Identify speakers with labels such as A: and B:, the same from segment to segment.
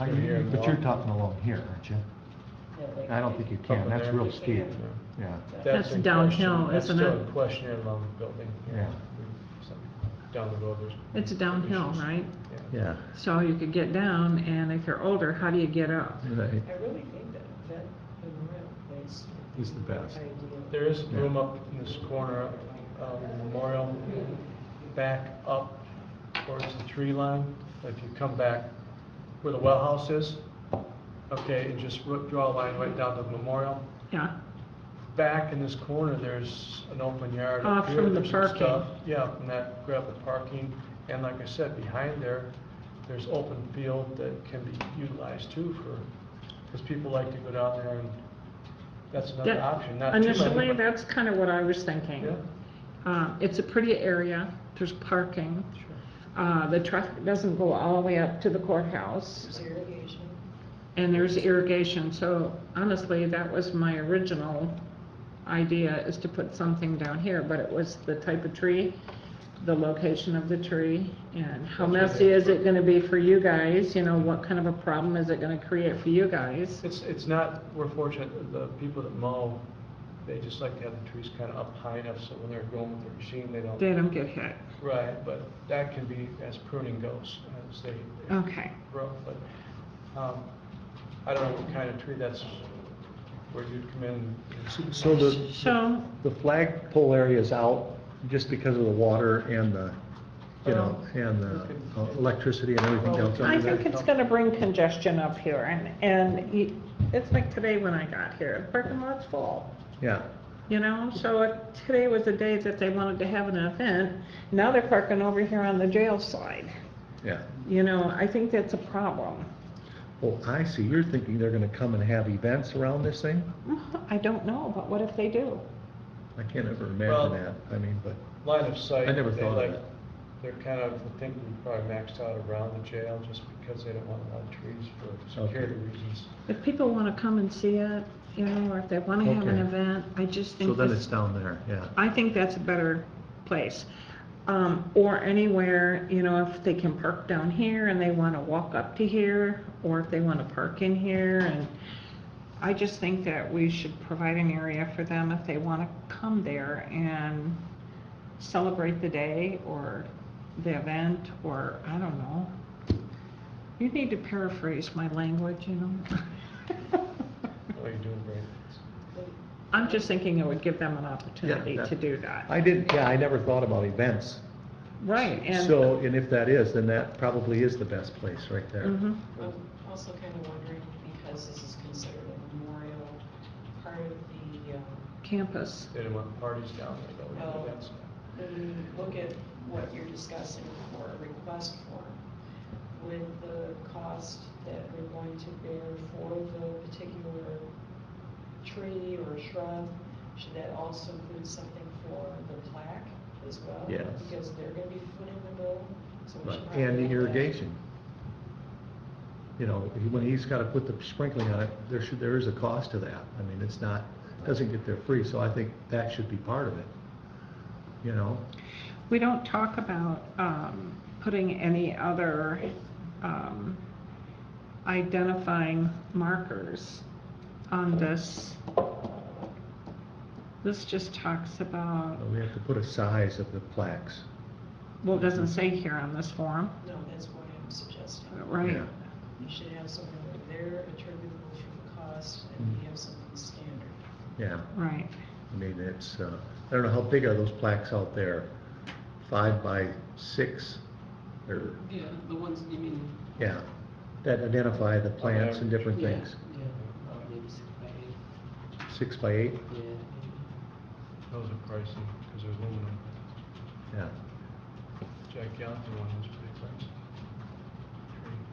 A: Are
B: through here
A: you,
B: and
A: but you're
B: walk.
A: talking along here, aren't you? I don't think you can, that's real steep, yeah.
C: That's
B: in
C: downhill,
B: question.
C: isn't
B: That's
C: it?
B: still a question along the building.
A: Yeah.
B: So, Down the road, there's.
C: It's downhill,
B: issues.
C: right?
B: Yeah.
D: Yeah,
C: So you could get down, and if you're older, how do you get up?
D: right.
E: I really think that that memorial place
D: He's the best.
E: idea.
B: There is room up in this corner, um, Memorial, back up towards the tree line. If you come back where the well house is, okay, and just ro- draw a line right down to Memorial.
C: Yeah,
B: Back in this corner, there's an open yard.
C: Off
B: up here,
C: from the
B: there's some
C: parking.
B: stuff. Yeah, from that gravel parking. And like I said, behind there, there's open field that can be utilized too for, because people like to go down there and that's another
C: That-
B: option, not too many.
C: initially,
B: but-
C: that's kind of what I was thinking.
B: Yeah,
C: Uh, it's a pretty area, there's parking,
B: sure.
C: uh, the traffic doesn't go all the way up to the courthouse,
E: There's irrigation.
C: and there's irrigation, so honestly, that was my original idea, is to put something down here, but it was the type of tree, the location of the tree, and how
B: That's what
C: messy
B: they-
C: is it gonna be for you guys, you know, what kind of a problem is it gonna create for you guys?
B: It's, it's not, we're fortunate, that the people that mow, they just like to have the trees kind of up high enough so when they're going with their machine, they don't.
C: They don't get hit,
B: Right, but that can be as pruning goes, as they they
C: okay.
B: grow, but, um, I don't know what kind of tree that's, where you'd come in. and-
D: So the,
C: So,
D: the flagpole area is out just because of the water and the, you know, and the uh, electricity and everything else
C: I
D: under
C: think
D: there.
C: it's gonna bring congestion up here, and, and you- it's like today when I got here, the parking lot's full.
D: Yeah,
C: You know, so if today was a day that they wanted to have an event, now they're parking over here on the jail side.
D: yeah.
C: You know, I think that's a problem.
D: Well, I see, you're thinking they're gonna come and have events around this thing?
C: I don't know, but what if they do?
D: I can't ever
B: Well-
D: imagine that, I mean, but,
B: Line of sight.
D: I never
B: they
D: thought of
B: like-
D: that.
B: They're kind of, I think we probably maxed out around the jail just because they don't want a lot of trees for
D: Okay.
B: security reasons.
C: If people wanna come and see it, you know, or if they wanna have an
D: Okay.
C: event, I just think
D: so
C: this.
D: then it's down there, yeah.
C: I think that's a better place. Um, or anywhere, you know, if they can park down here and they wanna walk up to here, or if they wanna park in here and I just think that we should provide an area for them if they wanna come there and celebrate the day or the event, or I don't know. You need to paraphrase my language, you know?
B: Oh, you're doing great.
C: I'm just thinking it would give them an opportunity
D: that-
C: to do that.
D: I didn't, yeah, I never thought about events.
C: Right, and.
D: So, and if that is, then that probably is the best place right there.
C: Mhm.
E: I'm also kind of wondering, because this is considered a memorial, part of the, um,
C: Campus.
B: They didn't want parties down there, though.
E: Oh.
B: That's-
E: when you look at what you're discussing for a request form, with the cost that we're going to bear for the particular tree or shrub, should that also include something for the plaque as well?
D: Yes.
E: Because they're gonna be footing the bill, so we
D: Right,
E: should probably.
D: And the
E: have that.
D: irrigation. You know, he- when he's gotta put the sprinkling on it, there should, there is a cost to that. I mean, it's not, doesn't get there free, so I think that should be part of it. You know,
C: We don't talk about um, putting any other um, identifying markers on this. This just talks about,
D: we have to put a size of the plaques.
C: well, it doesn't say here on this form,
E: No, that's what I'm suggesting.
C: right?
D: Yeah.
E: You should have something over there attributable to the cost, and you have something standard.
D: Yeah,
C: Right.
D: I mean, it's, uh, I don't know, how big are those plaques out there? Five by six, or,
F: Yeah, the ones, you mean?
D: yeah, that identify the plants and different
F: yeah,
D: things.
F: Yeah, uh, maybe six by eight,
D: Six by eight,
F: yeah. maybe.
B: Those are pricey, because they're aluminum.
D: yeah.
B: Jack Yountville one was pretty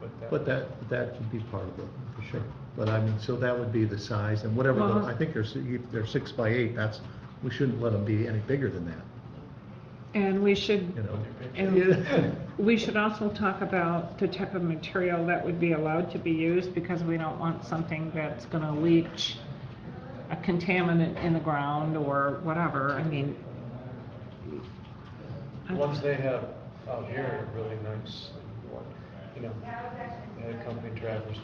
B: pricey. But that.
D: But that, that would be part of it, for sure. But I mean, so that would be the size and whatever, the-
C: Well-
D: I think they're, si- they're six by eight, that's, we shouldn't let them be any bigger than that,
C: And we
D: you
C: should,
D: know?
C: and we should also talk about the type of material that would be allowed to be used because we don't want something that's going to leach a contaminant in the ground or whatever. I mean,
B: The ones they have out here are really nice. and, You know, they had company drivers